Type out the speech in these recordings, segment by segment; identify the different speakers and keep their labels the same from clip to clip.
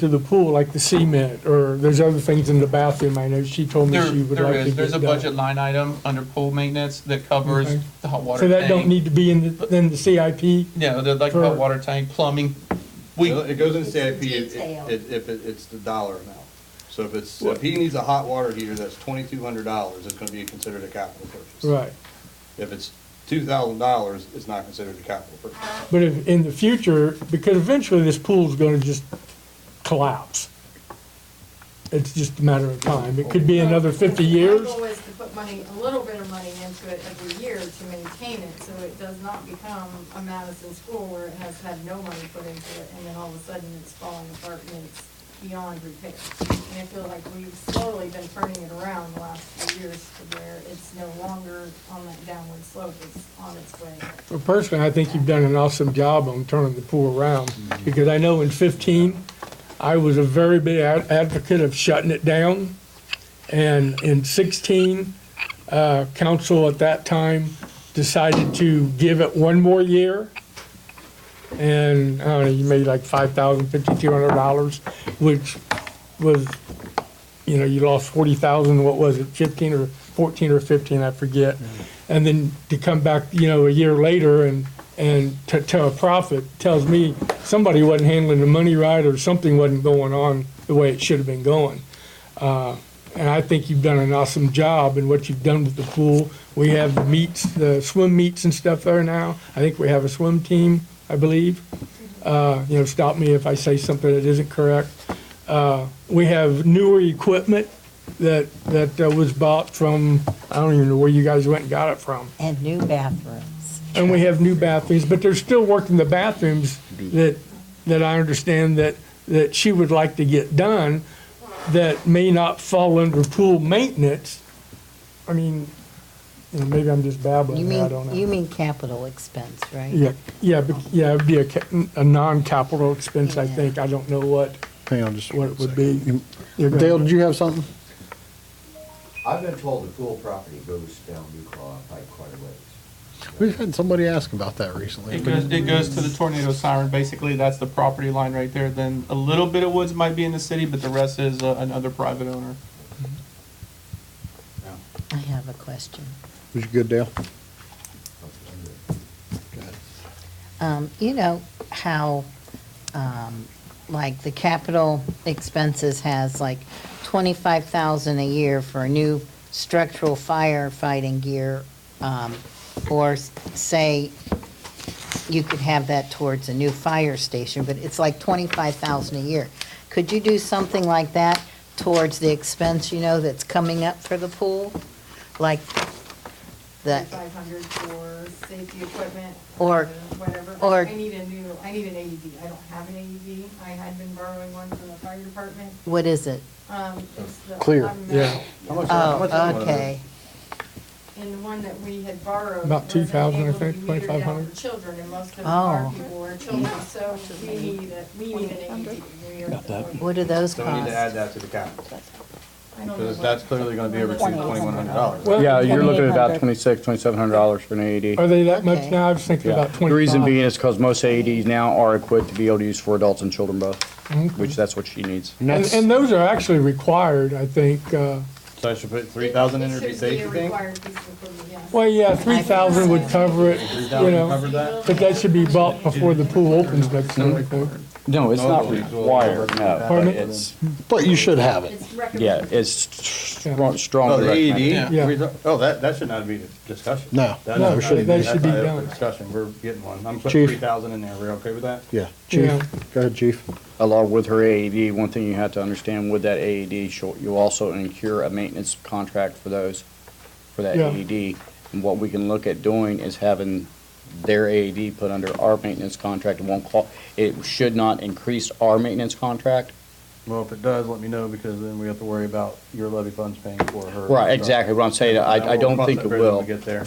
Speaker 1: to the pool, like the cement, or there's other things in the bathroom, I know she told me
Speaker 2: There,
Speaker 1: she would
Speaker 2: there
Speaker 1: like to
Speaker 2: is,
Speaker 1: get
Speaker 2: there's a
Speaker 1: done.
Speaker 2: budget line item under pool maintenance that covers
Speaker 1: Okay.
Speaker 2: the hot water
Speaker 1: So
Speaker 2: tank.
Speaker 1: that don't need to be in, the- in the CIP?
Speaker 2: Yeah, the, like
Speaker 1: for-
Speaker 2: hot water tank, plumbing. We,
Speaker 3: It goes in CIP
Speaker 4: It's
Speaker 3: if,
Speaker 4: detailed.
Speaker 3: if if it- it's the dollar amount. So if it's, if he needs a hot water heater, that's twenty-two hundred dollars, it's gonna be considered a capital purchase.
Speaker 1: Right.
Speaker 3: If it's two thousand dollars, it's not considered a capital purchase.
Speaker 1: But if, in the future, because eventually this pool's gonna just collapse. It's just a matter of time. It could be another fifty years.
Speaker 5: My goal is to put money, a little bit of money into it every year to maintain it, so it does not become a Madison school where it has had no money put into it, and then all of a sudden it's falling apart and it's beyond repair. And I feel like we've slowly been turning it around the last few years to where it's no longer on that downward slope, it's on its way.
Speaker 1: Well, Personally, I think you've done an awesome job on turning the pool around, because I know in fifteen, I was a very big ad- advocate of shutting it down. And in sixteen, uh, council at that time decided to give it one more year. And, I don't know, you made like five thousand, fifty-two hundred dollars, which was, you know, you lost forty thousand, what was it, fifteen or fourteen or fifteen, I forget. And then to come back, you know, a year later and, and to, to a profit tells me somebody wasn't handling the money right or something wasn't going on the way it should have been going. Uh, And I think you've done an awesome job in what you've done with the pool. We have the meets, the swim meets and stuff there now. I think we have a swim team, I believe. Uh, you know, stop me if I say something that isn't correct. Uh, we have newer equipment that, that uh, was bought from, I don't even know where you guys went and got it from.
Speaker 6: and new bathrooms.
Speaker 1: And we have new bathrooms, but there's still work in the bathrooms that, that I understand that, that she would like to get done that may not fall under pool maintenance. I mean, you know, maybe I'm just
Speaker 6: You
Speaker 1: babbling, I don't
Speaker 6: mean, you
Speaker 1: know.
Speaker 6: mean capital expense, right?
Speaker 1: Yeah, yeah, but- yeah, it'd be a, ca- a non-capital expense, I
Speaker 6: Yeah.
Speaker 1: think. I don't know what,
Speaker 7: Hang on just
Speaker 1: what it
Speaker 7: one
Speaker 1: would
Speaker 7: second.
Speaker 1: be. You're gonna-
Speaker 7: Dale, did you have something?
Speaker 8: I've been told the pool property goes down New Claw by quite a ways.
Speaker 7: We've had somebody ask about that recently.
Speaker 2: It goes, it goes to the tornado siren, basically, that's the property line right there, then a little bit of woods might be in the city, but the rest is uh, another private owner.
Speaker 6: I have a question.
Speaker 7: Was you good, Dale?
Speaker 6: Um, you know how, um, like the capital expenses has like twenty-five thousand a year for new structural firefighting gear, um, or s- say you could have that towards a new fire station, but it's like twenty-five thousand a year. Could you do something like that towards the expense, you know, that's coming up for the pool? Like the,
Speaker 5: Five hundred for safety equipment.
Speaker 6: Or-
Speaker 5: Whatever.
Speaker 6: or-
Speaker 5: I need a new, I need an AED. I don't have an AED. I had been borrowing one from the fire department.
Speaker 6: what is it?
Speaker 5: Um,
Speaker 3: Oh,
Speaker 5: it's the.
Speaker 7: Clear.
Speaker 5: automatic-
Speaker 1: Yeah.
Speaker 6: Oh, okay.
Speaker 5: And the one that we had borrowed.
Speaker 1: About
Speaker 5: wasn't
Speaker 1: 2,000, I
Speaker 5: able to be
Speaker 1: think,
Speaker 5: metered down
Speaker 1: 2,500.
Speaker 5: for Children, and most of
Speaker 6: Oh.
Speaker 5: our people are children, so we need, a- we need an AED. We are at the point-
Speaker 6: What do those
Speaker 3: So we need to add
Speaker 6: cost?
Speaker 3: that to the capital,
Speaker 5: I don't know
Speaker 3: because
Speaker 5: what-
Speaker 3: that's clearly gonna be over twenty-one hundred dollars.
Speaker 1: Well,
Speaker 9: Yeah, you're looking at about twenty-six, twenty-seven hundred dollars for an
Speaker 1: Are
Speaker 9: AED.
Speaker 1: they that much
Speaker 6: Okay.
Speaker 1: now? I was thinking
Speaker 9: Yeah.
Speaker 1: about
Speaker 9: The
Speaker 1: twenty-five.
Speaker 9: reason being is because most AEDs now are equipped to be able to use for adults and children both,
Speaker 1: Mm-hmm.
Speaker 9: which that's what she needs.
Speaker 1: And,
Speaker 7: that's-
Speaker 1: and those are actually required, I think, uh,
Speaker 3: So I should put three thousand in
Speaker 5: It
Speaker 3: to be
Speaker 5: should
Speaker 3: safe,
Speaker 5: a
Speaker 3: you think?
Speaker 5: required piece of equipment, yes.
Speaker 1: Well, yeah, three thousand would cover it,
Speaker 3: Three
Speaker 1: you
Speaker 3: thousand
Speaker 1: know,
Speaker 3: cover that?
Speaker 1: but that should be bought before the pool opens next year, I think.
Speaker 9: No, it's not
Speaker 3: No, it's-
Speaker 9: required, no.
Speaker 1: Pardon me?
Speaker 9: It's,
Speaker 7: But you should have it.
Speaker 5: It's recommended.
Speaker 9: yeah, it's strong,
Speaker 3: Oh,
Speaker 9: strongly
Speaker 3: the
Speaker 9: recommended.
Speaker 3: AED?
Speaker 1: Yeah.
Speaker 3: We don't- Oh, that, that should not be a discussion.
Speaker 7: No,
Speaker 3: That-
Speaker 1: no,
Speaker 3: that-
Speaker 1: that
Speaker 3: that's
Speaker 1: should be
Speaker 3: not up for
Speaker 1: done.
Speaker 3: Discussion, we're getting one. I'm putting
Speaker 7: Chief.
Speaker 3: three thousand in there, we okay with that?
Speaker 7: Yeah,
Speaker 1: Yeah.
Speaker 7: chief. Go ahead, chief.
Speaker 9: Along with her AED, one thing you have to understand with that AED, she'll- you'll also incur a maintenance contract for those, for that
Speaker 1: Yeah.
Speaker 9: AED. And what we can look at doing is having their AED put under our maintenance contract. It won't call, it should not increase our maintenance contract.
Speaker 3: Well, if it does, let me know, because then we have to worry about your levy funds paying for her.
Speaker 9: Right, exactly, what I'm saying, I, I
Speaker 3: We'll
Speaker 9: don't
Speaker 3: cross
Speaker 9: think
Speaker 3: that
Speaker 9: it
Speaker 3: bridge when
Speaker 9: will.
Speaker 3: we get there.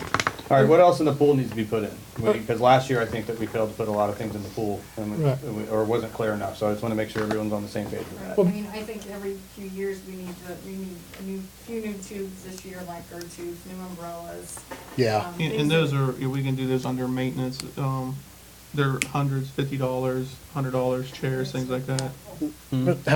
Speaker 3: All right, what else in the pool needs to be put in? Because last year, I think that we failed to put a lot of things in the pool, and we-
Speaker 1: Right.
Speaker 3: and we- or wasn't clear enough, so I just want to make sure everyone's on the same page with
Speaker 5: Right.
Speaker 3: that.
Speaker 5: I mean, I think every few years we need to, we need a new, few new tubes this year, like our tubes, new umbrellas.
Speaker 7: Yeah.
Speaker 5: um,
Speaker 2: And,
Speaker 5: things
Speaker 2: and
Speaker 5: that-
Speaker 2: those are, yeah, we can do those under maintenance, um,
Speaker 3: Mm-hmm.
Speaker 2: They're hundreds, fifty dollars, hundred dollars, chairs, things like that.